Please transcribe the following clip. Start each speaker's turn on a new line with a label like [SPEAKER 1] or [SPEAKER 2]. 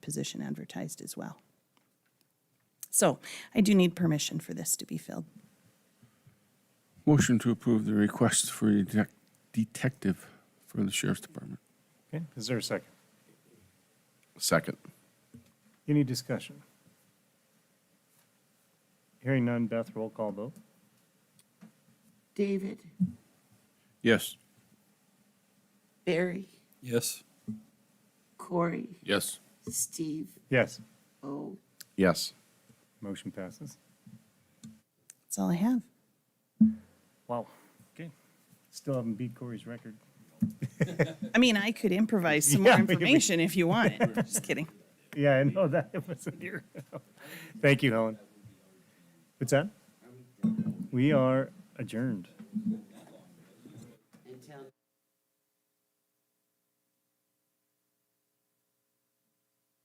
[SPEAKER 1] position advertised as well. So I do need permission for this to be filled.
[SPEAKER 2] Motion to approve the request for a detec- detective for the sheriff's department.
[SPEAKER 3] Okay, is there a second?
[SPEAKER 2] Second.
[SPEAKER 3] Any discussion? Hearing none, Beth, roll call vote.
[SPEAKER 4] David,
[SPEAKER 2] Yes.
[SPEAKER 4] Barry,
[SPEAKER 5] Yes.
[SPEAKER 4] Corey,
[SPEAKER 2] Yes.
[SPEAKER 4] Steve,
[SPEAKER 3] Yes,
[SPEAKER 4] O.
[SPEAKER 2] Yes.
[SPEAKER 3] motion passes.
[SPEAKER 1] That's all I have.
[SPEAKER 3] Wow, okay. Still haven't beat Corey's record.
[SPEAKER 1] I mean, I could improvise some more
[SPEAKER 3] Yeah, maybe.
[SPEAKER 1] information if you want it. Just kidding.
[SPEAKER 3] Yeah, I know that, it was a deer. Thank you, Helen. What's that? We are adjourned.